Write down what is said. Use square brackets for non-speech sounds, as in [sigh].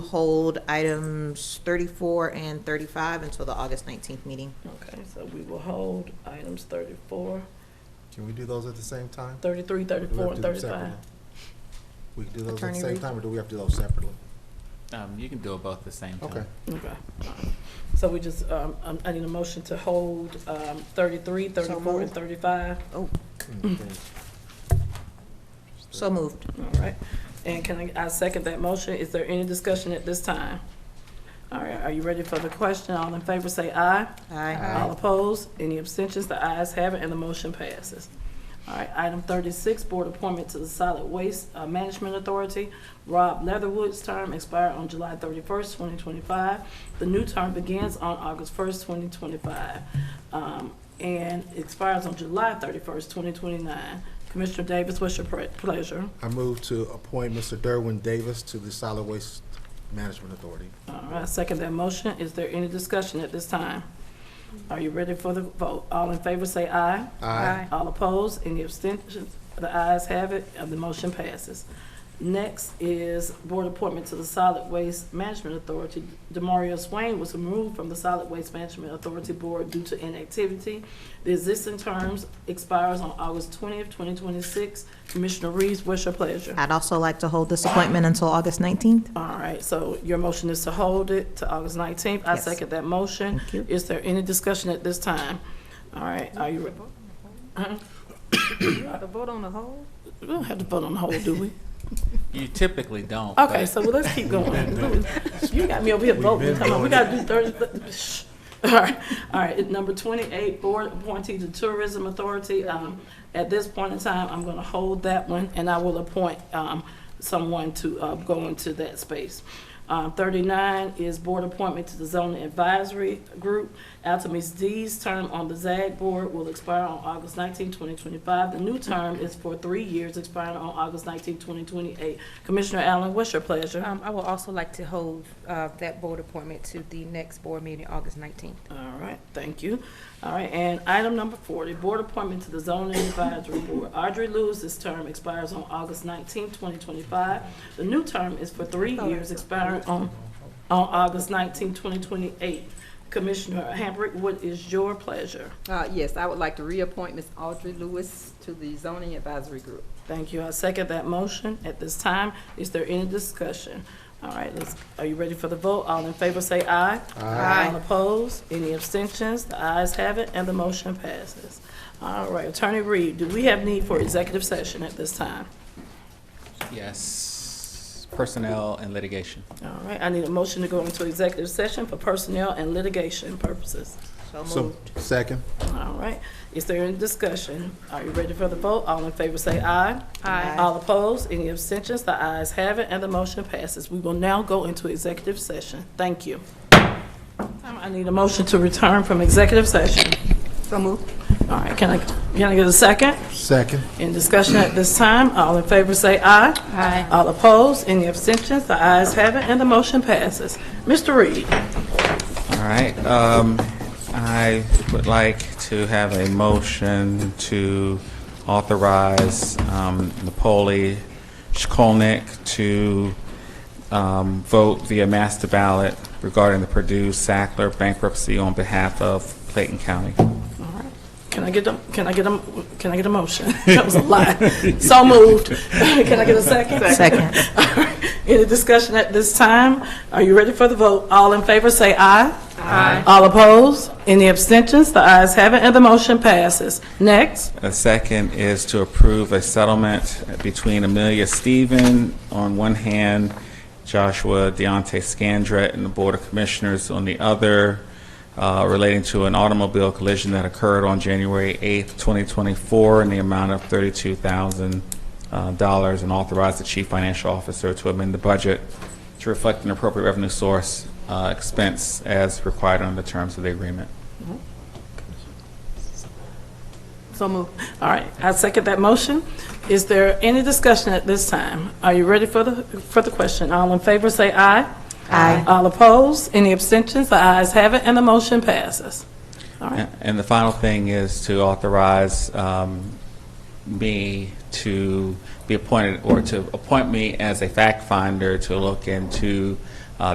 hold items 34 and 35 until the August 19th meeting. Okay, so we will hold items 34, Can we do those at the same time? 33, Or do we 34, have and to do them 35. separately? We can do those at Attorney the same Reed? time, or do we have to do those separately? Um, you can do it both at the same time. Okay. Okay. alright. So we just, um, um, I need a motion to hold um, 33, So 34, and moved. 35. Mm, Mm-hmm. thanks. So moved. All right. And can I, I second that motion. Is there any discussion at this time? All right, are you ready for the question? All in favor say aye. Aye. All opposed? Any abstentions? The ayes have it, and the motion passes. All right, item thirty-six, board appointment to the Solid Waste uh, Management Authority. Rob Leatherwood's term expired on July thirty-first, twenty twenty-five. The new term begins on August first, twenty twenty-five, um, and expires on July thirty-first, twenty twenty-nine. Commissioner Davis, what's your pre- pleasure? I move to appoint Mr. Derwin Davis to the Solid Waste Management Authority. All right, I second that motion. Is there any discussion at this time? Are you ready for the vote? All in favor say aye. Aye. All opposed, any abstentions? The ayes have it, and the motion passes. Next is board appointment to the Solid Waste Management Authority. Demario Swain was removed from the Solid Waste Management Authority Board due to inactivity. The existing terms expires on August twentieth, twenty twenty-six. Commissioner Reeves, what's your pleasure? I'd also like to hold this appointment until August 19th. All right, so your motion is to hold it to August 19th. I Yes. second that motion. Thank you. Is there any discussion at this time? All right, are you, The vote on the whole? we don't have to vote on the hold, do we? You typically don't. Okay, but- so well, let's keep going. You got me over here voting, come on, we gotta do Thursday. [laughs] Shh. All right, all right, number 28, board appointee to Tourism Authority. Um, At this point in time, I'm gonna hold that one, and I will appoint um, someone to uh, go into that space. Um, 39 is board appointment to the zoning advisory group. Altemis D's term on the ZAG board will expire on August 19, 2025. The new term is for three years, expiring on August 19, 2028. Commissioner Allen, what's your pleasure? Um, I would also like to hold, uh, that board appointment to the next board meeting, August nineteenth. All right, thank you. All right, and item number forty, board appointment to the zoning advisory board. Audrey Lewis's term expires on August nineteenth, twenty twenty-five. The new term is for three years, expiring on, on August nineteenth, twenty twenty-eight. Commissioner Hambrick, what is your pleasure? Uh, yes, I would like to reappoint Ms. Audrey Lewis to the zoning advisory group. Thank you. I second that motion. At this time, is there any discussion? All right, let's, are you ready for the vote? All in favor say aye. Aye. All opposed? Any abstentions? The ayes have it, and the motion passes. All right, Attorney Reed, do we have need for executive session at this time? Yes, personnel and litigation. All right, I need a motion to go into executive session for personnel and litigation purposes. So So, moved. second. All right, is there any discussion? Are you ready for the vote? All in favor say aye. Aye. All opposed, any abstentions? The ayes have it, and the motion passes. We will now go into executive session. Thank you. Um, I need a motion to return from executive session. So moved. All right, can I, can I get a second? Second. In discussion at this time, all in favor say aye. Aye. All opposed, any abstentions? The ayes have it, and the motion passes. Mr. Reed? All right, um, I would like to have a motion to authorize, um, Napoli Shkolnick to, um, vote via master ballot regarding the Purdue Sackler bankruptcy on behalf of Clayton County. Can I get a, can I get a, can I get a motion? [laughs] That was a lot. So moved. [laughs] Can I get a second? Second. [laughs] Any discussion at this time? Are you ready for the vote? All in favor, say aye. Aye. All opposed? Any abstentions? The ayes have it, and the motion passes. Next, The second is to approve a settlement between Amelia Stephen on one hand, Joshua Deontay Scandrett and the Board of Commissioners on the other, uh, relating to an automobile collision that occurred on January 8th, 2024, in the amount of $32,000, uh, dollars, and authorize the Chief Financial Officer to amend the budget to reflect an appropriate revenue source uh, expense as required under the terms of the agreement. so moved. All right, I second that motion. Is there any discussion at this time? Are you ready for the, for the question? All in favor, say aye. Aye. All opposed? Any abstentions? The ayes have it, and the motion passes. All right. A- And the final thing is to authorize um, me to be appointed, or to appoint me as a fact finder to look into uh,